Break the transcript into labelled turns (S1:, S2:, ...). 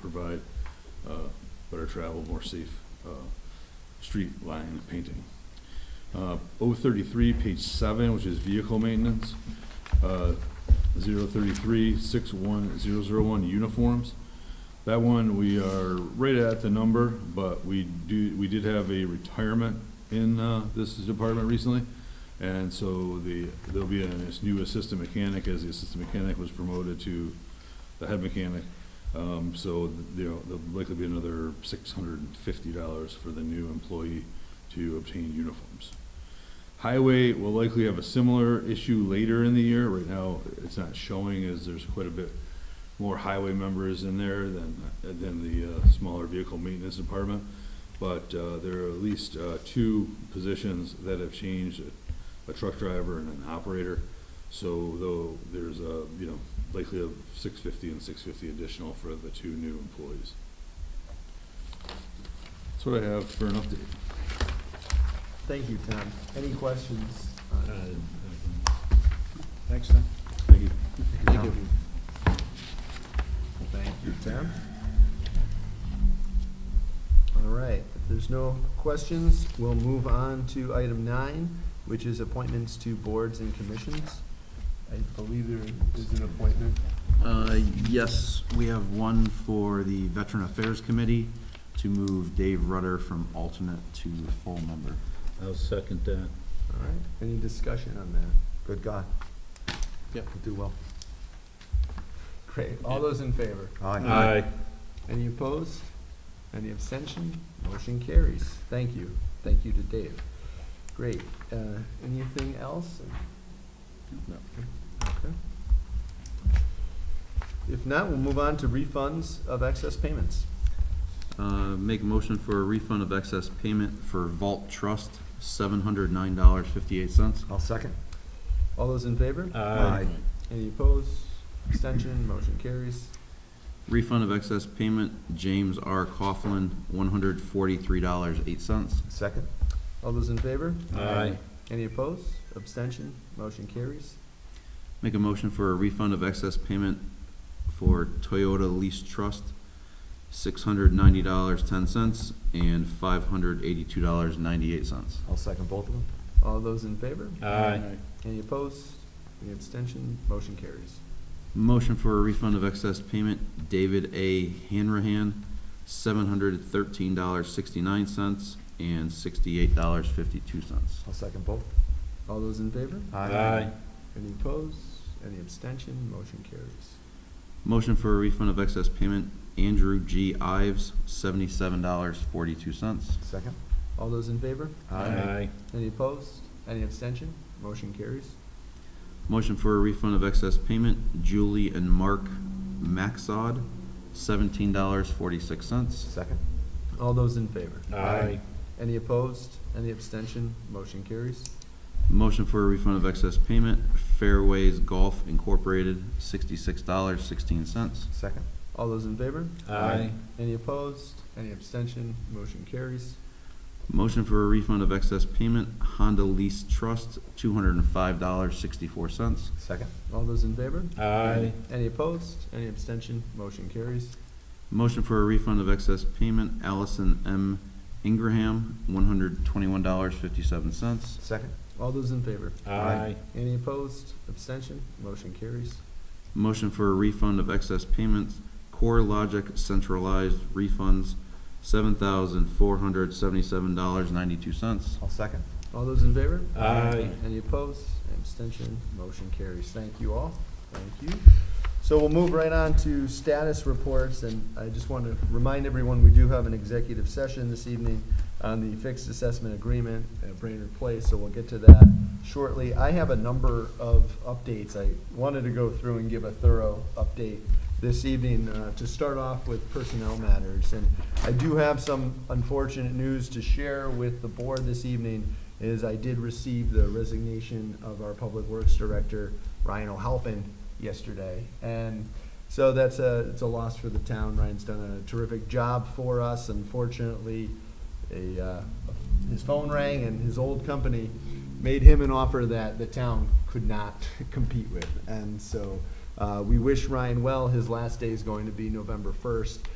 S1: provide uh, better travel, more safe uh, street lining and painting. Uh, 033, page seven, which is vehicle maintenance, uh, 033, 61001, uniforms. That one, we are right at the number, but we do, we did have a retirement in uh, this department recently. And so the, there'll be a new assistant mechanic, as the assistant mechanic was promoted to the head mechanic. Um, So, you know, there'll likely be another six hundred and fifty dollars for the new employee to obtain uniforms. Highway will likely have a similar issue later in the year. Right now, it's not showing as there's quite a bit more highway members in there than, than the uh, smaller vehicle maintenance department. But uh, there are at least uh, two positions that have changed, a truck driver and an operator. So though there's a, you know, likely of six fifty and six fifty additional for the two new employees. That's what I have for an update.
S2: Thank you, Tom. Any questions? on-
S3: Thanks, Tom.
S1: Thank you.
S2: Thank you. Thank you, Tom. All right, if there's no questions, we'll move on to item nine, which is appointments to boards and commissions. I believe there is an appointment.
S3: Uh, Yes, we have one for the Veteran Affairs Committee to move Dave Rudder from alternate to full member.
S4: I'll second that.
S2: All right, any discussion on that? Good God.
S3: Yep.
S2: do well. Great, all those in favor?
S4: Aye.
S2: Any opposed? Any abstention? Motion carries. Thank you. Thank you to Dave. Great. Uh, Anything else?
S3: No.
S2: Okay. If not, we'll move on to refunds of excess payments.
S3: Uh, Make a motion for a refund of excess payment for Vault Trust, seven hundred nine dollars fifty-eight cents.
S5: I'll second.
S2: All those in favor?
S5: Aye.
S2: Any opposed? Abstention? Motion carries.
S3: Refund of excess payment, James R. Coughlin, one hundred forty-three dollars eight cents.
S5: Second?
S2: All those in favor?
S4: Aye.
S2: Any opposed? Abstention? Motion carries.
S3: Make a motion for a refund of excess payment for Toyota Lease Trust, six hundred ninety dollars, ten cents, and five hundred eighty-two dollars, ninety-eight cents.
S5: I'll second both of them.
S2: All those in favor?
S4: Aye.
S2: Any opposed? Any abstention? Motion carries.
S3: Motion for a refund of excess payment, David A. Hanrahan, seven hundred thirteen dollars, sixty-nine cents, and sixty-eight dollars, fifty-two cents.
S5: I'll second both.
S2: All those in favor?
S4: Aye.
S2: Any opposed? Any abstention? Motion carries.
S3: Motion for a refund of excess payment, Andrew G. Ives, seventy-seven dollars, forty-two cents.
S5: Second?
S2: All those in favor?
S4: Aye.
S2: Any opposed? Any abstention? Motion carries.
S3: Motion for a refund of excess payment, Julie and Mark Maxod, seventeen dollars, forty-six cents.
S5: Second?
S2: All those in favor?
S4: Aye.
S2: Any opposed? Any abstention? Motion carries.
S3: Motion for a refund of excess payment, Fairways Golf Incorporated, sixty-six dollars, sixteen cents.
S5: Second?
S2: All those in favor?
S4: Aye.
S2: Any opposed? Any abstention? Motion carries.
S3: Motion for a refund of excess payment, Honda Lease Trust, two hundred and five dollars, sixty-four cents.
S5: Second?
S2: All those in favor?
S4: Aye.
S2: Any opposed? Any abstention? Motion carries.
S3: Motion for a refund of excess payment, Allison M. Ingraham, one hundred twenty-one dollars, fifty-seven cents.
S5: Second?
S2: All those in favor?
S4: Aye.
S2: Any opposed? Abstention? Motion carries.
S3: Motion for a refund of excess payments, Core Logic Centralized Refunds, seven thousand four hundred seventy-seven dollars, ninety-two cents.
S5: I'll second.
S2: All those in favor?
S4: Aye.
S2: Any opposed? Any Abstention? Motion carries. Thank you all. Thank you. So we'll move right on to status reports, and I just want to remind everyone, we do have an executive session this evening on the fixed assessment agreement at Brainerd Place, so we'll get to that shortly. I have a number of updates. I wanted to go through and give a thorough update this evening, uh, to start off with personnel matters. And I do have some unfortunate news to share with the board this evening, is I did receive the resignation of our Public Works Director, Ryan O'Halpin, yesterday. And so that's a, it's a loss for the town. Ryan's done a terrific job for us. Unfortunately, a, uh, his phone rang and his old company made him an offer that the town could not compete with. And so, uh, we wish Ryan well. His last day is going to be November first.